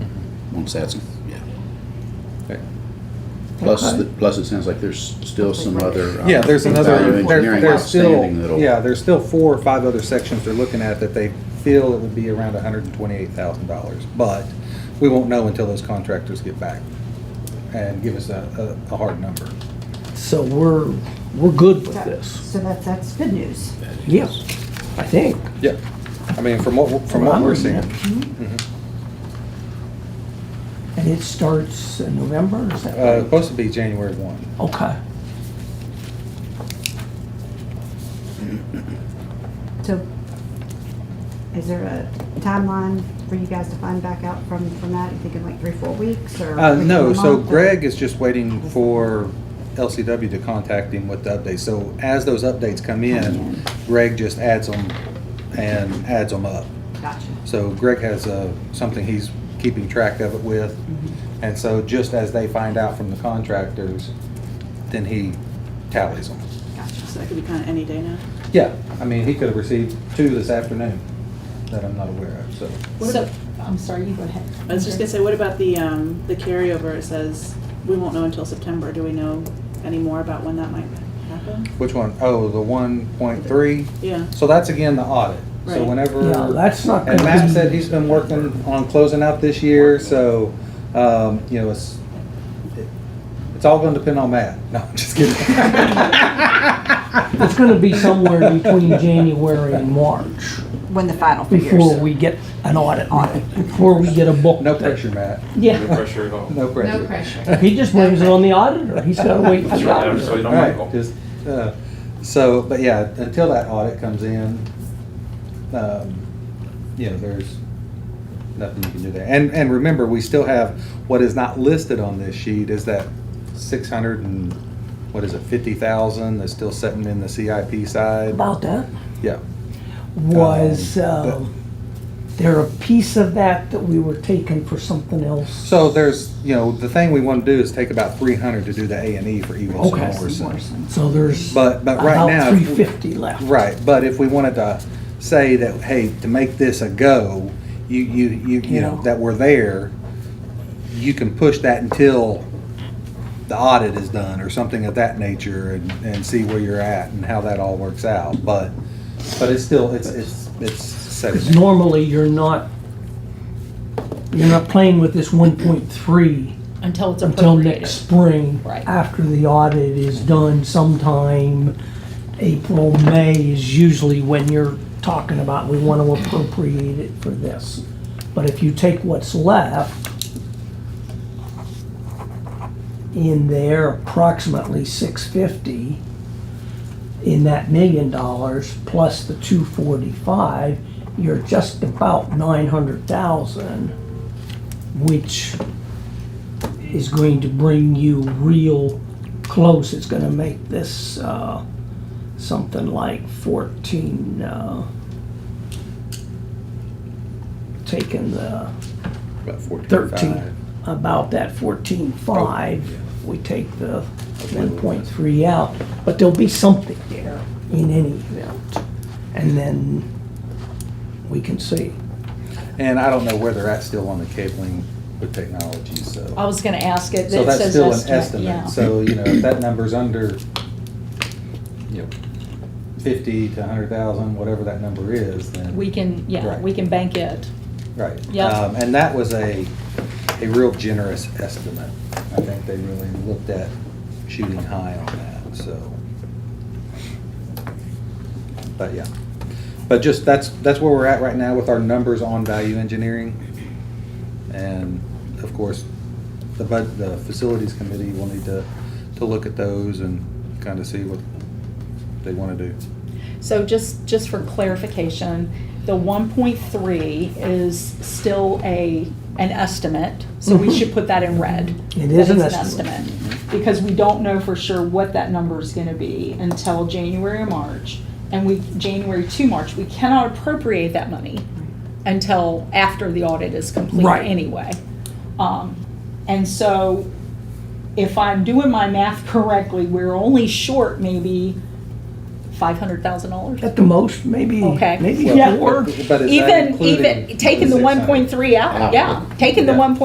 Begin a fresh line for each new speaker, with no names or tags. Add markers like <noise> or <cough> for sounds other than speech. once that's, yeah.
Okay.
Plus,
Okay.
the- plus it sounds like there's still some other. um,
Yeah, there's
value
another, there-
engineering
there's still,
outstanding that'll-
yeah, there's still four or five other sections they're looking at that they feel it would be around hundred and twenty-eight thousand dollars. But we won't know until those contractors get back and give us a, a, a hard number.
So we're, we're good with
That-
this.
So that, that's good news.
Yes, I think.
Yeah. I mean, from what, from what we're seeing. Mm-hmm.
And it starts in November, is that
Uh,
right?
supposed to be January one.
Okay.
So is there a timeline for you guys to find back out from, from that? You thinking like three, four weeks or?
Uh,
within
no,
a
so
month or-
Greg is just waiting for LCW to contact him with the updates. So as those updates come
Come
in,
in.
Greg just adds them and adds them up.
Gotcha.
So Greg has uh, something he's keeping track of it with. And so just as they find out from the contractors, then he tallies them.
Gotcha.
So that could be kind of any day now.
Yeah, I mean, he could have received two this afternoon that I'm not aware of, so.
So, I'm sorry, you go ahead.
I was just gonna say, what about the, um, the carryover? It says we won't know until September. Do we know any more about when that might happen?
Which one? Oh, the one point three?
Yeah.
So that's again the audit. So
Right.
whenever.
Yeah, that's not
uh, And
gonna
Matt
be-
said he's been working on closing out this year, so, um, you know, it's, it's all gonna depend on Matt. <laughs> No, I'm just kidding.
It's gonna be somewhere between January and March
When the final figures.
before we get an audit on it, before we get a book.
No pressure, Matt.
Yeah.
pressure at all.
No pressure.
No pressure.
He just blames it on the auditor. He's gotta wait for
That's
the
right, I'm
auditor.
sorry, don't
All right,
make all-
just, uh, so, but yeah, until that audit comes in, um, you know, there's nothing you can do there. And, and remember, we still have, what is not listed on this sheet is that six hundred and, what is it, fifty thousand that's still sitting in the CIP side?
About that
Yeah,
was,
Um, but-
um, there a piece of that that we were taking for something else?
so there's, you know, the thing we wanna do is take about three hundred to do the A and E for E Wilson
Okay.
Morrison.
So there's
But- but right now,
about
if we-
three fifty left.
Right, but if we wanted to say that, hey, to make this a go, you, you, you, you know,
Yeah.
that we're there, you can push that until the audit is done or something of that nature and, and see where you're at and how that all works out, but, but it's still, it's, it's, it's
Because
setting.
normally you're not, you're not playing with this one point three
Until it's
until
appropriated.
next spring.
Right.
After the audit is done sometime, April, May is usually when you're talking about, we want to appropriate it for this. But if you take what's left in there, approximately six fifty, in that million dollars plus the two forty-five, you're just about nine hundred thousand, which is going to bring you real close. It's gonna make this, uh, something like fourteen, uh, taking the
About 14.5.
thirteen, about that fourteen-five, we take the one point three out, but there'll be something there in any event. And then we can see.
And I don't know where they're at still on the cabling with technology, so.
I was gonna ask it, it
So that's
says
still an
estimate, yeah.
estimate, so, you know, if that number's under, you know, fifty to hundred thousand, whatever that number is, then.
We can, yeah,
Right.
we can bank it.
Right.
yeah.
Um, And that was a, a real generous estimate. I think they really looked at shooting high on that, so. But yeah, but just, that's, that's where we're at right now with our numbers on value engineering. And of course, the bud, the facilities committee will need to, to look at those and kind of see what they want to do.
So just, just for clarification, the one point three is still a, an estimate, so we should put that in red.
Mm-hmm. It
That
is an estimate.
estimate, Because we don't know for sure what that number is gonna be until January or March. And we, January to March, we cannot appropriate that money until after the audit is complete
Right.
anyway. Um, and so if I'm doing my math correctly, we're only short maybe five hundred thousand dollars.
At the most, maybe,
Okay.
maybe
Yeah.
four.
But is that
Even,
including
even, taking the one
six hundred?
point three out, yeah, taking the
Yeah.
one point